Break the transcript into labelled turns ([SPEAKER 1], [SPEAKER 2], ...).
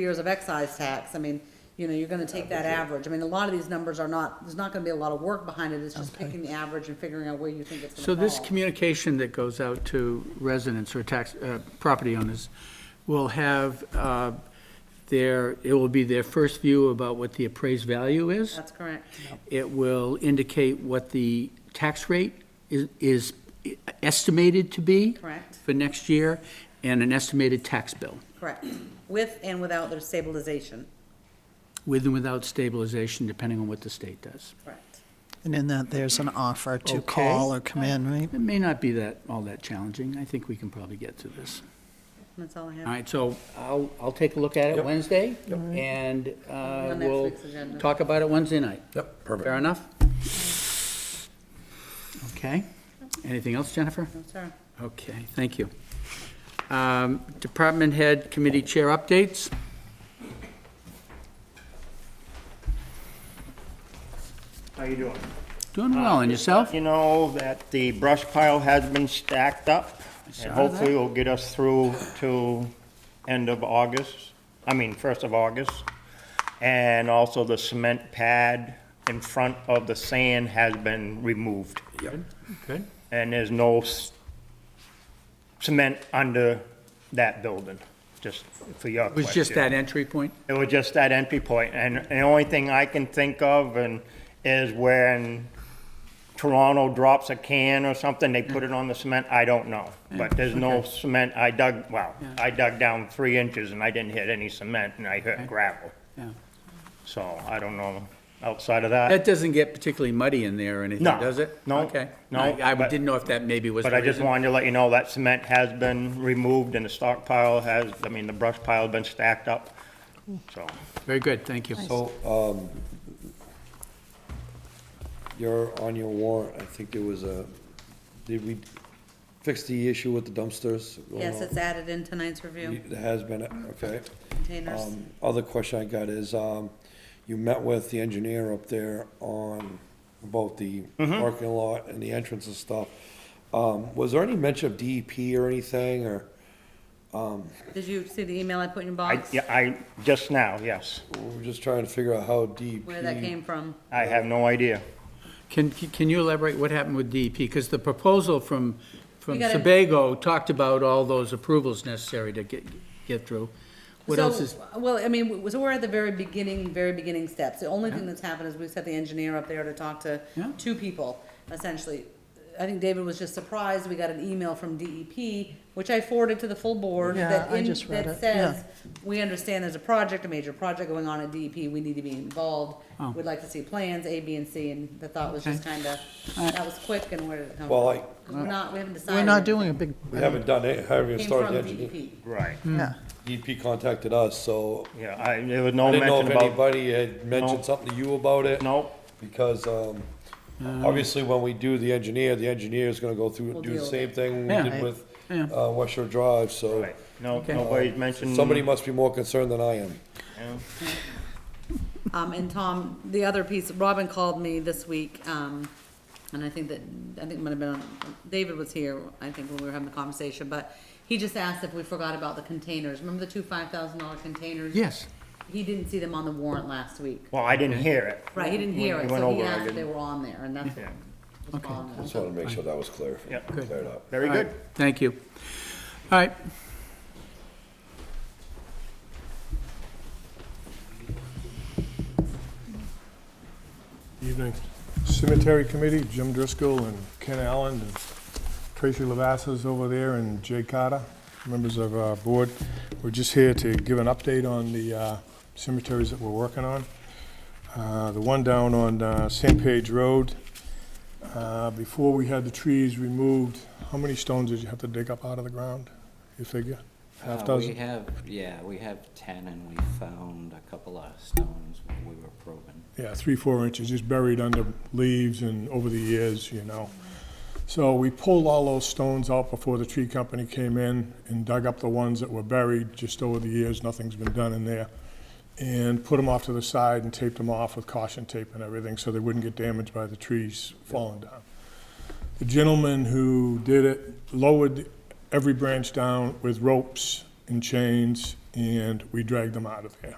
[SPEAKER 1] years of excise tax, I mean, you know, you're gonna take that average. I mean, a lot of these numbers are not, there's not gonna be a lot of work behind it, it's just picking the average and figuring out where you think it's gonna
[SPEAKER 2] So
[SPEAKER 1] fall.
[SPEAKER 2] this communication that goes out to residents or tax, uh, property owners will have uh, their, it will be their first view about what the appraised value is.
[SPEAKER 1] That's correct.
[SPEAKER 2] It will indicate what the tax rate is- is estimated to be.
[SPEAKER 1] Correct.
[SPEAKER 2] For next year, and an estimated tax bill,
[SPEAKER 1] Correct. With and without their stabilization.
[SPEAKER 2] with and without stabilization, depending on what the state does.
[SPEAKER 1] Correct.
[SPEAKER 3] And in that, there's an offer to
[SPEAKER 2] Okay.
[SPEAKER 3] call or come in, right?
[SPEAKER 2] It may not be that, all that challenging. I think we can probably get through this.
[SPEAKER 1] That's all I
[SPEAKER 2] All
[SPEAKER 1] have.
[SPEAKER 2] right, so I'll, I'll take a look at it Wednesday, and uh,
[SPEAKER 1] On next
[SPEAKER 2] we'll
[SPEAKER 1] week's agenda.
[SPEAKER 2] talk about it Wednesday night.
[SPEAKER 4] Yep,
[SPEAKER 2] Fair
[SPEAKER 4] perfect.
[SPEAKER 2] enough? Okay. Anything else, Jennifer?
[SPEAKER 1] No, sir.
[SPEAKER 2] Okay, thank you. Um, Department head committee chair updates?
[SPEAKER 5] How you doing?
[SPEAKER 2] Doing Uh, well, and yourself?
[SPEAKER 5] You know that the brush pile has been stacked up,
[SPEAKER 2] saw
[SPEAKER 5] and hopefully
[SPEAKER 2] that.
[SPEAKER 5] will get us through to end of August, I mean, first of August. And also the cement pad in front of the sand has been removed,
[SPEAKER 2] Good.
[SPEAKER 5] and there's no s- cement under that building, just for your
[SPEAKER 2] It
[SPEAKER 5] question.
[SPEAKER 2] was just that entry point?
[SPEAKER 5] It was just that entry point, and the only thing I can think of and is when Toronto drops a can or something, they put it on the cement, I don't know. But there's no cement, I dug, well, I dug down three inches and I didn't hit any cement and I hit gravel.
[SPEAKER 2] Yeah.
[SPEAKER 5] So I don't know, outside of that,
[SPEAKER 2] That doesn't get particularly muddy in there or anything,
[SPEAKER 5] No,
[SPEAKER 2] does it?
[SPEAKER 5] no,
[SPEAKER 2] Okay.
[SPEAKER 5] no,
[SPEAKER 2] I I
[SPEAKER 5] but-
[SPEAKER 2] didn't know if that maybe was the
[SPEAKER 5] but I
[SPEAKER 2] reason.
[SPEAKER 5] just wanted to let you know that cement has been removed and the stockpile has, I mean, the brush pile has been stacked up, so.
[SPEAKER 2] Very good, thank you.
[SPEAKER 4] So, um, you're on your warrant, I think there was a, did we fix the issue with the dumpsters?
[SPEAKER 1] Yes, it's added in tonight's review,
[SPEAKER 4] It has been, okay.
[SPEAKER 1] containers.
[SPEAKER 4] Um, Other question I got is, um, you met with the engineer up there on both the parking lot and the entrance and stuff. Um, was there any mention of DEP or anything, or
[SPEAKER 1] Did you see the email I put in your
[SPEAKER 5] I,
[SPEAKER 1] box?
[SPEAKER 5] yeah, I, just now, yes,
[SPEAKER 4] we were just trying to figure out how E DEP?
[SPEAKER 1] Where that came from?
[SPEAKER 5] I have no idea.
[SPEAKER 2] Can, can you elaborate what happened with DEP? Because the proposal from, from
[SPEAKER 1] We got a-
[SPEAKER 2] Sebago talked about all those approvals necessary to get, get through. What
[SPEAKER 1] So,
[SPEAKER 2] else is,
[SPEAKER 1] Well, I mean, w- so we're at the very beginning, very beginning steps. The only thing that's happened is we set the engineer up there to talk to
[SPEAKER 2] Yeah.
[SPEAKER 1] two people, essentially. I think David was just surprised, we got an email from DEP, which I forwarded to the full board.
[SPEAKER 3] Yeah,
[SPEAKER 1] that
[SPEAKER 3] I
[SPEAKER 1] in-
[SPEAKER 3] just read
[SPEAKER 1] that
[SPEAKER 3] it, yeah.
[SPEAKER 1] says, We understand there's a project, a major project going on at DEP, we need to be involved.
[SPEAKER 2] Oh.
[SPEAKER 1] We'd like to see plans, A, B, and C, and the thought was just kinda, that was quick, and where did it come from?
[SPEAKER 4] Well, I-
[SPEAKER 1] 'Cause we're not, we haven't decided.
[SPEAKER 3] We're not doing a big,
[SPEAKER 4] We haven't done it, haven't even
[SPEAKER 1] Came
[SPEAKER 4] started
[SPEAKER 1] from E
[SPEAKER 4] the engineer.
[SPEAKER 1] DEP.
[SPEAKER 5] Right.
[SPEAKER 3] yeah.
[SPEAKER 4] DEP contacted us, so
[SPEAKER 5] Yeah, I, there was no
[SPEAKER 4] I didn't know if
[SPEAKER 5] mention about,
[SPEAKER 4] anybody had mentioned
[SPEAKER 5] No.
[SPEAKER 4] something to you about it.
[SPEAKER 5] no, Uh,
[SPEAKER 4] Because, um, obviously, when we do the engineer, the engineer is gonna go through,
[SPEAKER 1] We'll
[SPEAKER 4] do the
[SPEAKER 1] deal with
[SPEAKER 4] same
[SPEAKER 1] it.
[SPEAKER 4] thing we
[SPEAKER 2] Yeah.
[SPEAKER 4] did
[SPEAKER 2] Right.
[SPEAKER 4] with,
[SPEAKER 2] Yeah.
[SPEAKER 4] uh, West Shore Drive, so.
[SPEAKER 5] right, no,
[SPEAKER 2] Okay.
[SPEAKER 5] nobody's mentioned.
[SPEAKER 4] Somebody must be more concerned than I am.
[SPEAKER 5] Yeah.
[SPEAKER 1] Um, and Tom, the other piece, Robin called me this week, um, and I think that, I think it might have been, on- David was here, I think, when we were having the conversation, but he just asked if we forgot about the containers. Remember the two five thousand dollar containers?
[SPEAKER 2] yes,
[SPEAKER 1] He didn't see them on the warrant last week.
[SPEAKER 5] Well, I didn't hear it.
[SPEAKER 1] Right, he didn't
[SPEAKER 5] When
[SPEAKER 1] hear
[SPEAKER 5] we
[SPEAKER 1] it,
[SPEAKER 5] went
[SPEAKER 1] so he
[SPEAKER 5] over, I
[SPEAKER 1] asked if they
[SPEAKER 5] didn't-
[SPEAKER 1] were on there, and that's
[SPEAKER 5] Yeah.
[SPEAKER 1] what was on there.
[SPEAKER 4] Just wanted to make sure that was clear,
[SPEAKER 5] Yep.
[SPEAKER 2] Good.
[SPEAKER 4] cleared up.
[SPEAKER 5] Very
[SPEAKER 2] All right,
[SPEAKER 5] good.
[SPEAKER 2] thank you. All right.
[SPEAKER 6] Evening. Cemetery Committee, Jim Driscoll and Ken Allen, and Tracy Lavassa's over there, and Jay Carter, members of our board. We're just here to give an update on the uh, cemeteries that we're working on. Uh, The one down on uh, Sandpage Road, uh, before we had the trees removed, how many stones did you have to dig up out of the ground? You figure? Half
[SPEAKER 7] Uh,
[SPEAKER 6] dozen?
[SPEAKER 7] We have, yeah, we have ten and we found a couple of stones when we were probing.
[SPEAKER 6] Yeah, three, four inches, just buried under leaves and over the years, you know. So we pulled all those stones out before the tree company came in and dug up the ones that were buried just over the years, nothing's been done in there. And put them off to the side and taped them off with caution tape and everything so they wouldn't get damaged by the trees falling down. The gentleman who did it lowered every branch down with ropes and chains and we dragged them out of there.